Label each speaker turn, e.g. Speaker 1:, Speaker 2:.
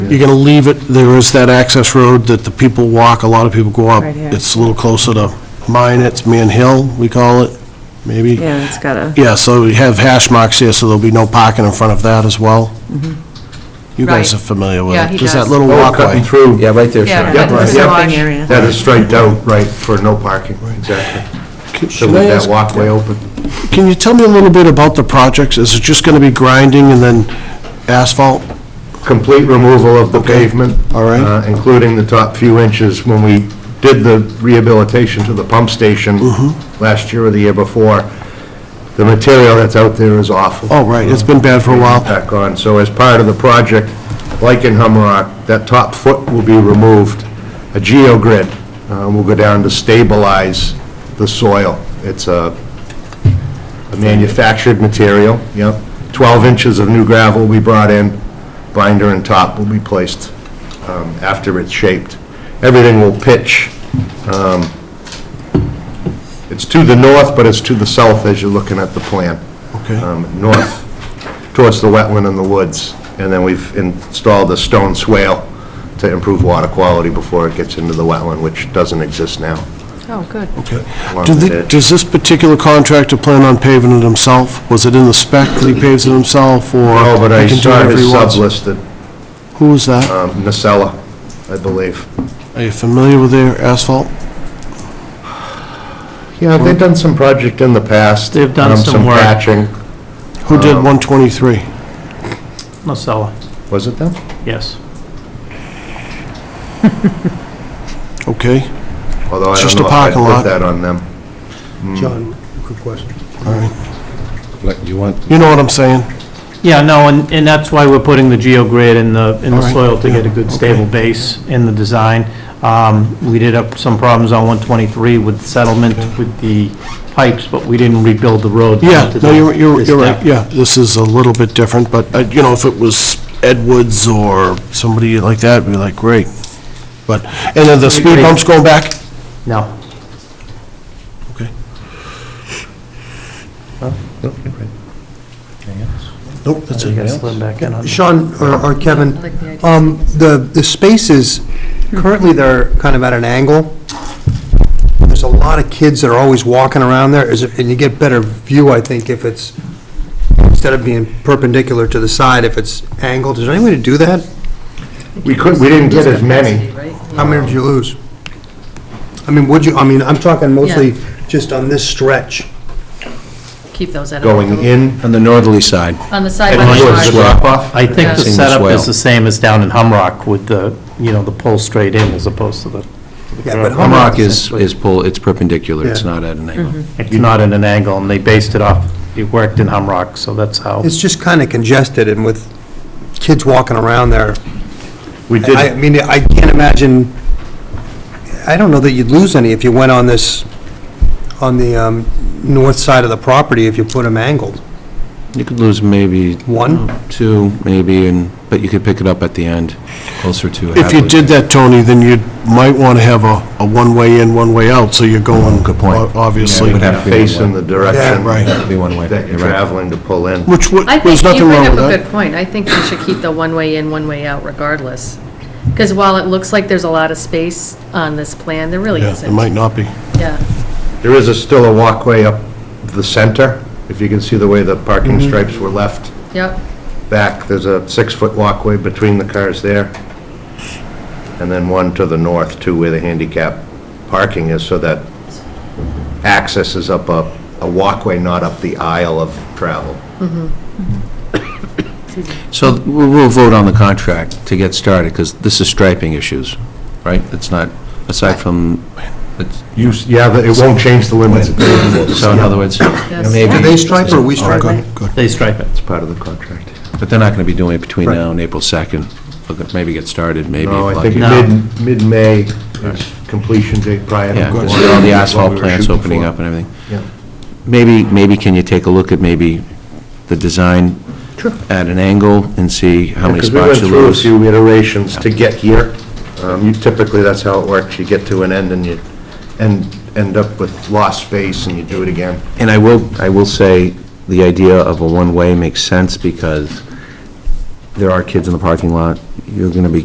Speaker 1: You're going to leave it, there is that access road that the people walk, a lot of people go up.
Speaker 2: Right here.
Speaker 1: It's a little closer to mine, it's Man Hill, we call it, maybe.
Speaker 2: Yeah, it's got a,
Speaker 1: Yeah, so we have hash marks here, so there'll be no parking in front of that as well. You guys
Speaker 3: Right.
Speaker 1: are familiar with it.
Speaker 3: Yeah, he
Speaker 1: There's
Speaker 3: does.
Speaker 1: that little
Speaker 4: Oh, cutting
Speaker 1: walkway.
Speaker 4: through.
Speaker 5: Yeah, right there,
Speaker 3: Yeah,
Speaker 5: Sean.
Speaker 3: that's
Speaker 4: right.
Speaker 3: the
Speaker 4: Yeah.
Speaker 3: salon area.
Speaker 4: That is striped out, right, for no parking, exactly. So
Speaker 1: Should I
Speaker 4: with that
Speaker 1: ask-
Speaker 4: walkway open.
Speaker 1: Can you tell me a little bit about the projects? Is it just going to be grinding and then asphalt?
Speaker 4: Complete removal of the
Speaker 1: Okay.
Speaker 4: pavement.
Speaker 1: All right.
Speaker 4: uh, Including the top few inches. When we did the rehabilitation to the pump station
Speaker 1: Mm-hmm.
Speaker 4: last year or the year before, the material that's out there is awful.
Speaker 1: Oh, right, it's been bad for a while.
Speaker 4: Back on. So as part of the project, like in Humrock, that top foot will be removed. A geogrid uh, will go down to stabilize the soil. It's a a manufactured material, yep. 12 inches of new gravel will be brought in, binder and top will be placed um, after it's shaped. Everything will pitch. um, It's to the north, but it's to the south as you're looking at the plan.
Speaker 1: Okay.
Speaker 4: Um, North, towards the wetland and the woods. And then we've installed a stone swale to improve water quality before it gets into the wetland, which doesn't exist now.
Speaker 3: Oh, good.
Speaker 1: Okay.
Speaker 4: Along
Speaker 1: Do
Speaker 4: with
Speaker 1: the-
Speaker 4: it.
Speaker 1: Does this particular contractor plan on paving it himself? Was it in the spec that he paves it himself, or?
Speaker 4: No, but I
Speaker 1: he can do
Speaker 4: saw
Speaker 1: whatever he
Speaker 4: his
Speaker 1: wants?
Speaker 4: sub-listed,
Speaker 1: Who is that?
Speaker 4: um, Nacella, I believe.
Speaker 1: Are you familiar with their asphalt?
Speaker 4: Yeah, they've done some project in the past.
Speaker 6: They've done
Speaker 4: um,
Speaker 6: some work.
Speaker 4: patching.
Speaker 1: Who did
Speaker 4: Uh,
Speaker 1: 123?
Speaker 6: Nocella,
Speaker 4: Was it them?
Speaker 6: yes.
Speaker 1: Okay,
Speaker 4: hmm. Although I
Speaker 1: It's
Speaker 4: don't
Speaker 1: just
Speaker 4: know
Speaker 1: a
Speaker 4: if I
Speaker 1: parking lot.
Speaker 4: put that on them.
Speaker 7: John, quick question.
Speaker 1: all right.
Speaker 5: Like, You want,
Speaker 1: You know what I'm saying?
Speaker 6: Yeah, no, and, and that's why we're putting the geogrid in the, in
Speaker 1: All
Speaker 6: the
Speaker 1: right,
Speaker 6: soil to get a
Speaker 1: yeah,
Speaker 6: good
Speaker 1: okay.
Speaker 6: stable base in the design. Um, we did have some problems on 123 with settlement with the pipes, but we didn't rebuild the road.
Speaker 1: Yeah,
Speaker 6: to
Speaker 1: no,
Speaker 6: the-
Speaker 1: you're, you're
Speaker 6: this
Speaker 1: you're right,
Speaker 6: depth.
Speaker 1: yeah, this is a little bit different, but, uh, you know, if it was Ed Woods or somebody like that, we'd be like, great. But, and then the speed
Speaker 6: agree.
Speaker 1: bumps going back?
Speaker 6: No,
Speaker 1: Okay. Nope, that's
Speaker 6: you gotta
Speaker 1: it.
Speaker 6: slim back in on.
Speaker 7: Sean or or Kevin, um, the, the spaces, currently they're kind of at an angle. There's a lot of kids that are always walking around there, is it- and you get better view, I think, if it's, instead of being perpendicular to the side, if it's angled. Is there any way to do that?
Speaker 4: We couldn't, we didn't get as many.
Speaker 7: How many did you lose? I mean, would you, I mean, I'm talking mostly just on this stretch.
Speaker 3: Keep those at.
Speaker 4: Going in
Speaker 5: on the northerly side.
Speaker 3: On the side by
Speaker 4: and towards the
Speaker 3: the car.
Speaker 4: drop-off?
Speaker 6: I think
Speaker 3: Yeah.
Speaker 6: the
Speaker 5: Seeing the
Speaker 6: setup
Speaker 5: swale.
Speaker 6: is the same as down in Humrock with the, you know, the pull straight in as opposed to the,
Speaker 7: Yeah, but how much-
Speaker 5: Humrock is, is pull, it's perpendicular, it's
Speaker 7: Yeah.
Speaker 5: not at an angle.
Speaker 6: it's not at an angle, and they based it off, it worked in Humrock, so that's how.
Speaker 7: It's just kind of congested, and with kids walking around there,
Speaker 4: We
Speaker 7: I I
Speaker 4: did,
Speaker 7: mean, I can't imagine, I don't know that you'd lose any if you went on this, on the um, north side of the property if you put them angled.
Speaker 5: You could lose maybe
Speaker 7: One,
Speaker 5: two, maybe, and, but you could pick it up at the end, closer to Hadley.
Speaker 1: If you did that, Tony, then you might want to have a, a one-way in, one-way out, so you're going.
Speaker 5: Good point.
Speaker 1: o- Obviously.
Speaker 5: Yeah, it would have-
Speaker 4: face in the direction
Speaker 7: Yeah,
Speaker 1: right.
Speaker 5: That'd be one way.
Speaker 4: that you're
Speaker 5: You're right.
Speaker 4: traveling to pull in.
Speaker 1: Which, wa-
Speaker 3: I
Speaker 1: there's
Speaker 3: think you
Speaker 1: nothing
Speaker 3: bring
Speaker 1: wrong
Speaker 3: up
Speaker 1: with
Speaker 3: a
Speaker 1: that.
Speaker 3: good point. I think we should keep the one way in, one way out regardless. Because while it looks like there's a lot of space on this plan, there really
Speaker 1: Yeah, it
Speaker 3: isn't.
Speaker 1: might not be.
Speaker 3: Yeah,
Speaker 4: There is a- still a walkway up the center, if you can see the way the parking stripes were left
Speaker 3: yep.
Speaker 4: back. There's a six-foot walkway between the cars there. And then one to the north, too, where the handicap parking is, so that access is up a, a walkway, not up the aisle of travel.
Speaker 5: So we'll we'll vote on the contract to get started, because this is striping issues, right? It's not, aside from, it's-
Speaker 4: You, s- yeah, but it won't change the limits.
Speaker 5: so in other words, maybe...
Speaker 7: do they stripe or we stripe?
Speaker 6: They stripe it.
Speaker 4: It's part of the contract.
Speaker 5: But they're not going to be doing it between
Speaker 4: Right.
Speaker 5: now and April 2nd. Look, at- Maybe get started, maybe.
Speaker 4: No, I
Speaker 5: lucky.
Speaker 4: think
Speaker 6: No.
Speaker 4: mid, mid-May is completion date prior to.
Speaker 5: Yeah,
Speaker 4: going
Speaker 5: with
Speaker 4: on,
Speaker 5: all the
Speaker 4: is what
Speaker 5: asphalt
Speaker 4: we were
Speaker 5: plants
Speaker 4: shooting
Speaker 5: opening
Speaker 4: for.
Speaker 5: up and everything.
Speaker 4: Yeah.
Speaker 5: Maybe, maybe can you take a look at maybe the design at an angle and see how many
Speaker 4: Because we
Speaker 5: spots
Speaker 4: went
Speaker 5: you
Speaker 4: through a
Speaker 5: lose?
Speaker 4: few iterations to get here. Um, you Typically, that's how it works. You get to an end and you end, end up with lost space and you do it again.
Speaker 5: And I will, I will say, the idea of a one-way makes sense because there are kids in the parking lot. You're going to be